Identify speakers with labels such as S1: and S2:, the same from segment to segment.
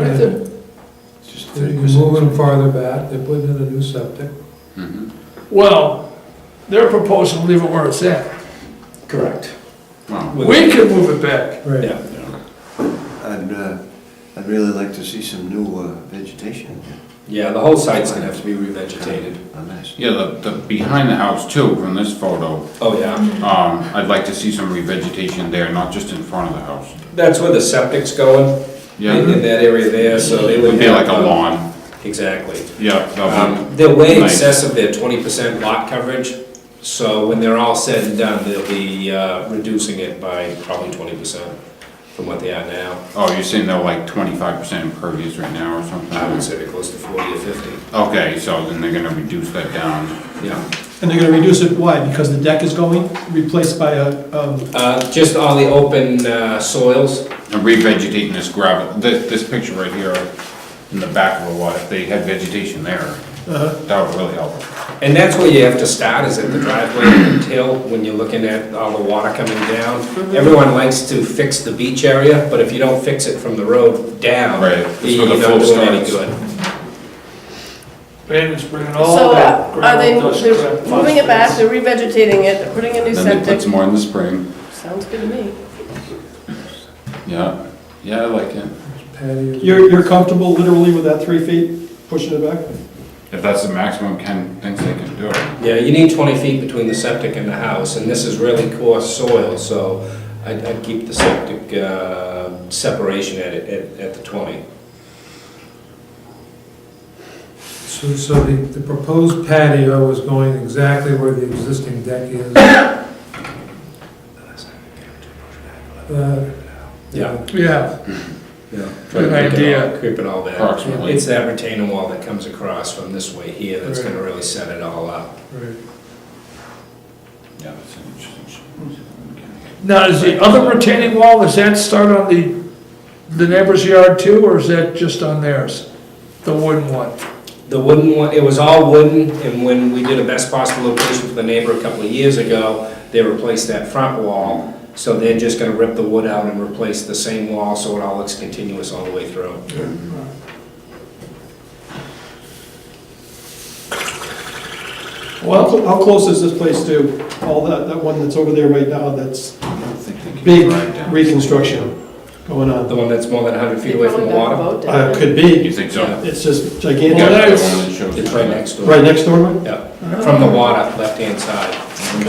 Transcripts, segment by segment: S1: it.
S2: Just
S1: You're
S2: thirty
S1: moving
S2: percent.
S1: them farther back, they're putting in a new septic.
S3: Well, they're proposing to leave it where it's at.
S4: Correct.
S5: Well,
S3: We can move it back.
S1: Right.
S4: Yeah.
S2: I'd, uh, I'd really like to see some new uh, vegetation.
S4: Yeah, the whole site's gonna have to be revegetated.
S2: A mess.
S5: Yeah, the, the, behind the house too, from this photo,
S4: Oh, yeah.
S5: um, I'd like to see some revegetation there, not just in front of the house.
S4: That's where the septic's going,
S5: Yeah,
S4: in in
S5: it'd
S4: that area there, so they would. um,
S5: be like a lawn,
S4: Exactly.
S5: yeah. that would-
S4: Um, They're way in
S5: Nice.
S4: excess of their twenty percent lot coverage, so when they're all said and done, they'll be uh, reducing it by probably twenty percent from what they are now.
S5: Oh, you're saying they're like twenty-five percent impervious right now or
S4: I would
S5: something?
S4: say they're close to forty or fifty.
S5: Okay, so then they're gonna reduce that down.
S4: Yeah.
S6: And they're gonna reduce it, why? Because the deck is going, replaced by a, um,
S4: Uh, Just all the open uh, soils,
S5: And revegetating this gravel, this, this picture right here in the back of the lot, if they had vegetation there,
S4: Uh-huh.
S5: that would really help.
S4: and that's where you have to start, is at the driveway and hill, when you're looking at all the water coming down.
S5: Mm-hmm.
S4: Everyone likes to fix the beach area, but if you don't fix it from the road down,
S5: Right, that's where
S4: you're
S5: the
S4: not
S5: flow
S4: doing any
S5: starts.
S4: good.
S3: Van is bringing all
S7: So
S3: that
S7: uh, are they,
S3: gravel, dust,
S7: they're
S3: crap,
S7: moving it back,
S3: phosphorus.
S7: they're revegetating it, they're putting a new
S5: Then they put
S7: septic?
S5: some more in the spring,
S7: Sounds good to me.
S5: yeah, yeah, I like it.
S1: Patios.
S6: you're, you're comfortable literally with that three feet, pushing it back?
S5: If that's the maximum Ken thinks they can do.
S4: Yeah, you need 20 feet between the septic and the house, and this is really coarse soil, so I'd I'd keep the septic uh, separation at it- at at the 20.
S1: So, so the, the proposed patio is going exactly where the existing deck is. Uh,
S4: Yeah.
S3: Yeah,
S4: Try
S3: Good
S4: to keep it
S3: idea.
S4: all- Keep it all back.
S5: Approximately.
S4: It's that retaining wall that comes across from this way here that's going to really set it all up.
S1: Right.
S5: Yeah, that's an interesting. shape.
S3: now, is the other retaining wall, does that start on the, the neighbor's yard too, or is that just on theirs? The wooden one?
S4: The wooden one, it was all wooden, and when we did a best possible location for the neighbor a couple of years ago, they replaced that front wall, so they're just going to rip the wood out and replace the same wall, so it all looks continuous all the way through.
S6: Well, how cl- how close is this place to all that, that one that's over there right now, that's
S5: I don't think they can
S6: big
S5: drive down.
S6: reconstruction going
S4: The
S6: on?
S4: one that's more than 100 feet
S7: They
S4: away from
S7: probably
S4: the
S7: got the
S4: water?
S7: boat
S6: Uh,
S7: down.
S6: could
S5: You
S6: be,
S5: think so?
S4: Yeah.
S6: it's just
S5: You
S6: gigantic,
S5: got
S3: Well,
S5: the
S3: that's-
S5: one that shows
S4: It's right next door.
S6: right next door, right?
S4: Yeah, from the water, left-hand side.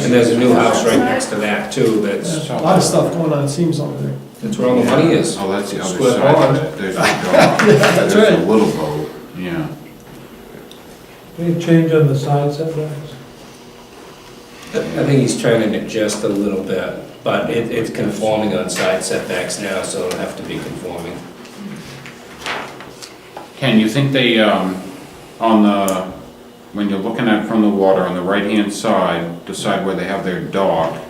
S4: And there's a new house right next to that too, that's,
S6: There's A lot of stuff going on, it seems over there.
S4: that's where all the money is.
S5: Oh, that's the other
S4: Square
S5: side
S4: pond.
S5: of it. There's a dog. There's a
S6: right.
S5: little boat, yeah.
S1: Any change on the side setbacks?
S4: I think he's trying to adjust a little bit, but it, it's conforming on side setbacks now, so it'll have to be conforming.
S5: Ken, you think they, um, on the, when you're looking at from the water, on the right-hand side, decide where they have their dock,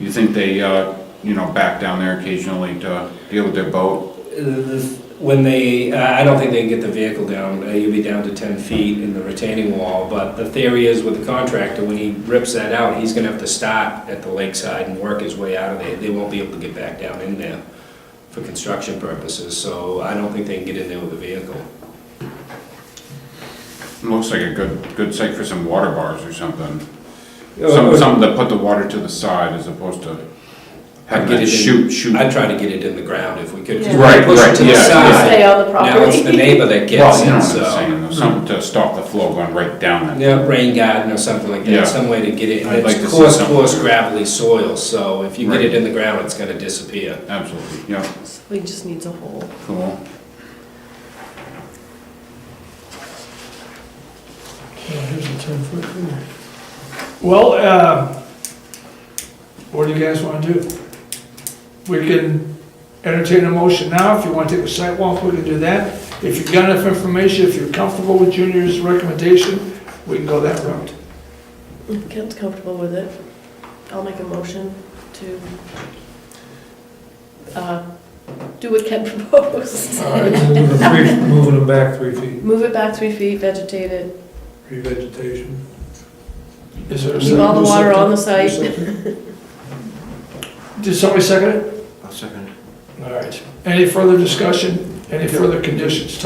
S5: you think they, uh, you know, back down there occasionally to deal with their boat?
S4: When they, uh, I I don't think they can get the vehicle down, Uh, you'll be down to 10 feet in the retaining wall, but the theory is with the contractor, when he rips that out, he's gonna have to stop at the lakeside and work his way out of there. They won't be able to get back down in there for construction purposes, so I don't think they can get in there with a vehicle.
S5: Looks like a good, good site for some water bars or something.
S4: Or-
S5: Some, some that put the water to the side as opposed to
S4: I'd
S5: having
S4: get it
S5: it
S4: in-
S5: shoot, shoot.
S4: I'd try to get it in the ground if we could. 'cause
S7: Yeah.
S4: when you
S5: Right,
S4: push it
S5: right,
S4: to the
S5: yeah, yeah.
S4: side,
S7: Stay on the
S4: Now it's the
S7: property.
S4: neighbor that
S5: Well,
S4: gets
S5: you know
S4: it,
S5: what I'm
S4: so.
S5: saying, though, something to stop the flow going right down there.
S4: Yeah, rain garden or something like
S5: Yeah.
S4: that, some way to get it,
S5: I'd like to
S4: it's
S5: see
S4: coarse,
S5: something.
S4: coarse gravelly soil, so if you get
S5: Right.
S4: it in the ground, it's gonna disappear.
S5: Absolutely, yeah,
S7: He just needs a hole.
S5: cool.
S6: Here's a ten foot here.
S3: Well, uh, what do you guys want to do? We can entertain a motion now, if you want to take a site walk, we can do that. If you've got enough information, if you're comfortable with Junior's recommendation, we can go that route.
S7: If Kent's comfortable with it, I'll make a motion to uh, do what Kent proposed.
S3: All right.
S1: Moving them three- moving them back three feet,
S7: Move it back three feet, vegetate it,
S1: revegetation.
S3: Is there a
S7: leave all the
S3: second?
S7: water on the site.
S3: Did somebody second it?
S2: I'll second it.
S3: All right. Any further discussion? Any further conditions?